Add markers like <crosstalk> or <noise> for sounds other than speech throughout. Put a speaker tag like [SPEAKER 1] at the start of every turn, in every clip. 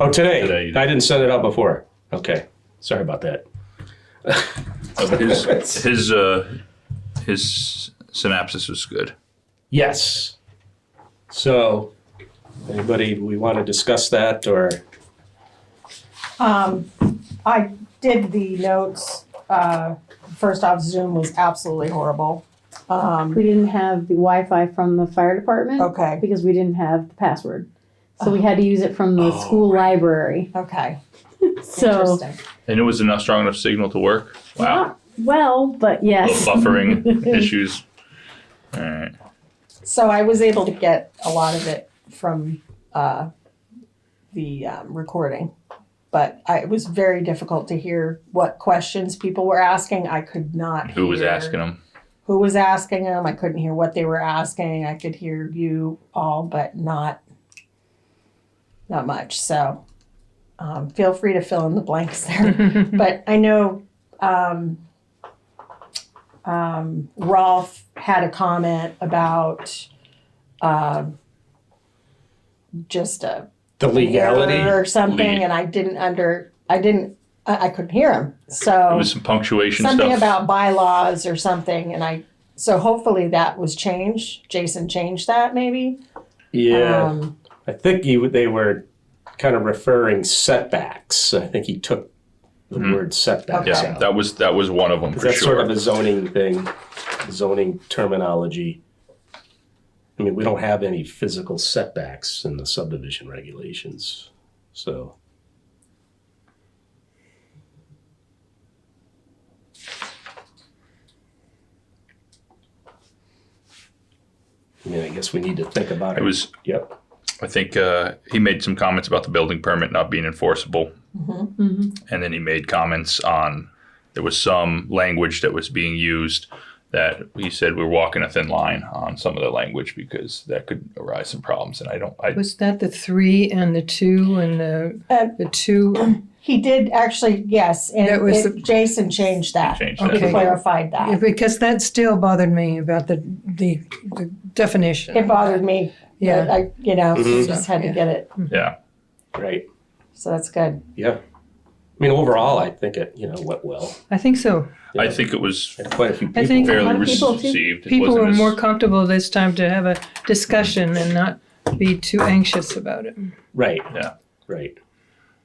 [SPEAKER 1] Oh, today?
[SPEAKER 2] Today you did.
[SPEAKER 1] I didn't send it out before. Okay. Sorry about that. <laughs>
[SPEAKER 2] But his his uh, his synopsis was good.
[SPEAKER 1] Yes. So, anybody, we want to discuss that or?
[SPEAKER 3] Um, I did the notes, uh, first off, Zoom was absolutely horrible. Um,
[SPEAKER 4] We didn't have the Wi-Fi from the fire department
[SPEAKER 3] okay, Oh.
[SPEAKER 4] because we didn't have the password. So we had to use it from the
[SPEAKER 2] Oh,
[SPEAKER 4] school library.
[SPEAKER 3] okay,
[SPEAKER 4] So
[SPEAKER 3] interesting.
[SPEAKER 2] And it was a not strong enough signal to work. Wow.
[SPEAKER 4] not well, but yes.
[SPEAKER 2] Little
[SPEAKER 3] <laughs>
[SPEAKER 2] buffering issues. All right.
[SPEAKER 3] So I was able to get a lot of it from, uh, the, um, recording. But I, it was very difficult to hear what questions people were asking. I could not
[SPEAKER 2] Who was
[SPEAKER 3] hear
[SPEAKER 2] asking him?
[SPEAKER 3] Who was asking them. I couldn't hear what they were asking. I could hear you all, but not, not much. So um, feel free to fill in the blanks
[SPEAKER 2] <laughs>
[SPEAKER 3] there. but I know um, um, Rolf had a comment about um just a
[SPEAKER 1] The legality?
[SPEAKER 3] or something,
[SPEAKER 2] Le-
[SPEAKER 3] and I didn't under I didn't I, I couldn't hear him. So
[SPEAKER 2] It was some punctuation
[SPEAKER 3] something
[SPEAKER 2] stuff.
[SPEAKER 3] about bylaws or something, and I so hopefully that was changed. Jason changed that maybe.
[SPEAKER 1] Yeah.
[SPEAKER 3] Um,
[SPEAKER 1] I think he, they were kind of referring setbacks. I think he took the
[SPEAKER 2] Mhm.
[SPEAKER 1] word setbacks
[SPEAKER 2] yeah,
[SPEAKER 1] out.
[SPEAKER 2] that was that was one of them
[SPEAKER 1] 'Cause
[SPEAKER 2] for
[SPEAKER 1] that's
[SPEAKER 2] sure.
[SPEAKER 1] sort of a zoning thing, zoning terminology. I mean, we don't have any physical setbacks in the subdivision regulations, so. I mean, I guess we need to think about
[SPEAKER 2] it
[SPEAKER 1] it.
[SPEAKER 2] was
[SPEAKER 1] Yep,
[SPEAKER 2] I think uh, he made some comments about the building permit not being enforceable,
[SPEAKER 4] Mhm.
[SPEAKER 2] and then he made comments on there was some language that was being used that he said we're walking a thin line on some of the language because that could arise some problems, and I don't. I,
[SPEAKER 5] Was that the three and the two and the,
[SPEAKER 3] Uh,
[SPEAKER 5] the two?
[SPEAKER 3] He did actually, yes, and
[SPEAKER 5] That was
[SPEAKER 3] it-
[SPEAKER 5] the-
[SPEAKER 3] Jason changed that.
[SPEAKER 2] He changed
[SPEAKER 3] He
[SPEAKER 5] that.
[SPEAKER 3] clarified
[SPEAKER 5] Yeah,
[SPEAKER 3] that.
[SPEAKER 5] Because that still bothered me about the, the the definition.
[SPEAKER 3] It bothered me. but
[SPEAKER 5] Yeah,
[SPEAKER 3] I you know
[SPEAKER 2] Mm-hmm.
[SPEAKER 1] Mhm.
[SPEAKER 3] just had to
[SPEAKER 5] Yeah.
[SPEAKER 3] get it.
[SPEAKER 2] yeah,
[SPEAKER 1] right,
[SPEAKER 3] So that's good.
[SPEAKER 1] yeah. I mean, overall, I think it, you know, went well.
[SPEAKER 5] I think so.
[SPEAKER 2] I think it was
[SPEAKER 1] Had quite a few
[SPEAKER 5] I think-
[SPEAKER 1] people.
[SPEAKER 2] fairly
[SPEAKER 4] lot of people too-
[SPEAKER 2] received. It
[SPEAKER 5] People
[SPEAKER 2] wasn't
[SPEAKER 5] were
[SPEAKER 2] as-
[SPEAKER 5] more comfortable this time to have a discussion and not be too anxious about it.
[SPEAKER 1] Right.
[SPEAKER 2] Yeah.
[SPEAKER 1] Right.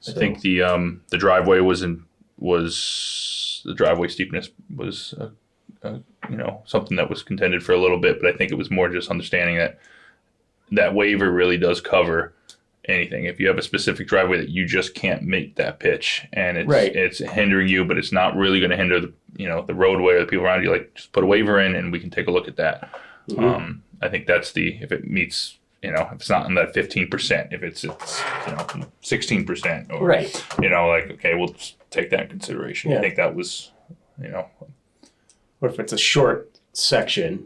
[SPEAKER 2] I
[SPEAKER 1] So-
[SPEAKER 2] think the um the driveway was in was the driveway steepness was uh, uh, you know something that was contended for a little bit, but I think it was more just understanding that that waiver really does cover anything. If you have a specific driveway that you just can't make that pitch and it's
[SPEAKER 1] Right.
[SPEAKER 2] it's hindering you, but it's not really going to hinder the you know the roadway or the people around you, like just put a waiver in and we can take a look at that.
[SPEAKER 1] Mhm.
[SPEAKER 2] Um, I think that's the if it meets. You know, if it's not in that fifteen percent, if it's it's you know sixteen percent or
[SPEAKER 1] Right.
[SPEAKER 2] you know, like okay, we'll just take that in consideration.
[SPEAKER 1] Yeah.
[SPEAKER 2] I think that was, you know,
[SPEAKER 1] or if it's a short section,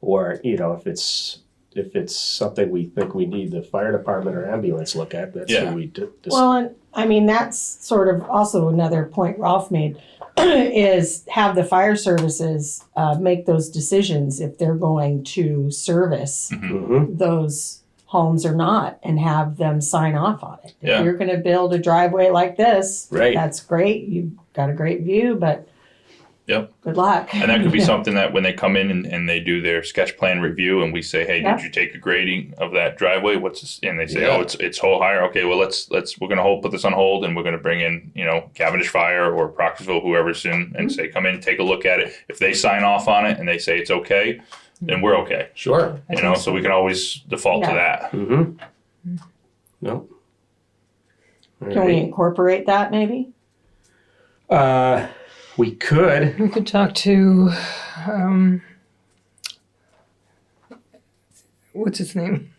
[SPEAKER 1] or you know, if it's if it's something we think we need the fire department or ambulance look at, that's
[SPEAKER 2] Yeah.
[SPEAKER 1] what we did. Dis-
[SPEAKER 3] Well, and I mean, that's sort of also another point Ralph made <clears throat> is have the fire services uh, make those decisions if they're going to service
[SPEAKER 1] Mhm.
[SPEAKER 3] those homes or not and have them sign off on it.
[SPEAKER 2] Yeah.
[SPEAKER 3] If you're going to build a driveway like this,
[SPEAKER 1] Right.
[SPEAKER 3] that's great. You've got a great view, but
[SPEAKER 2] Yep.
[SPEAKER 3] good luck.
[SPEAKER 2] and that could
[SPEAKER 3] <laughs>
[SPEAKER 2] be something that when they come in and, and they do their sketch plan review, and we say, hey,
[SPEAKER 3] Yeah.
[SPEAKER 2] did you take a grading of that driveway? What's this? and they say,
[SPEAKER 1] Yeah.
[SPEAKER 2] oh, it's it's whole higher. Okay, well let's let's we're gonna hold put this on hold, and we're gonna bring in you know Cavendish Fire or Proctorsville, whoever's in, and say come in, take a look at it. If they sign off on it and they say it's okay, then we're okay.
[SPEAKER 1] Sure.
[SPEAKER 5] Mm-hmm.
[SPEAKER 2] You know, so we can always default to
[SPEAKER 3] Yeah.
[SPEAKER 2] that.
[SPEAKER 1] hmm No.
[SPEAKER 3] Can we incorporate that maybe?
[SPEAKER 1] Uh, we could.
[SPEAKER 5] We could talk to, um, what's his name?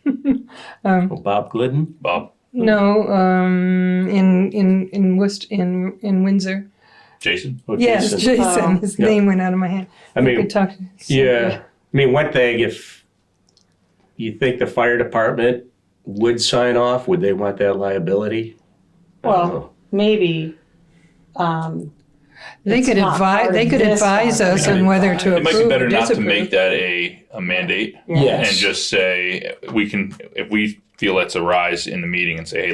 [SPEAKER 1] Oh, Bob Glidden.
[SPEAKER 2] Bob,
[SPEAKER 5] No, um, in, in, in Worcester, in, in Windsor.
[SPEAKER 2] Jason,
[SPEAKER 1] Oh,
[SPEAKER 5] Yes,
[SPEAKER 1] Jason.
[SPEAKER 3] Oh.
[SPEAKER 5] Jason, his
[SPEAKER 1] Yeah.
[SPEAKER 5] name went out of my head.
[SPEAKER 1] I
[SPEAKER 5] We
[SPEAKER 1] mean,
[SPEAKER 5] could talk to.
[SPEAKER 1] yeah. I mean, one thing if you think the fire department would sign off, would they want that liability? I don't
[SPEAKER 3] Well,
[SPEAKER 1] know.
[SPEAKER 3] Maybe. Um,
[SPEAKER 5] They
[SPEAKER 3] It's
[SPEAKER 5] could
[SPEAKER 3] not
[SPEAKER 5] advise,
[SPEAKER 3] part
[SPEAKER 5] they
[SPEAKER 3] of
[SPEAKER 5] could
[SPEAKER 3] this
[SPEAKER 5] advise us
[SPEAKER 2] one.
[SPEAKER 5] on whether to
[SPEAKER 2] it might be
[SPEAKER 5] approve
[SPEAKER 2] better
[SPEAKER 5] or
[SPEAKER 2] not to make
[SPEAKER 5] disapprove.
[SPEAKER 2] that a a mandate.
[SPEAKER 3] yeah.
[SPEAKER 1] Yes.
[SPEAKER 2] and just say we can if we feel that's a rise in the meeting and say hey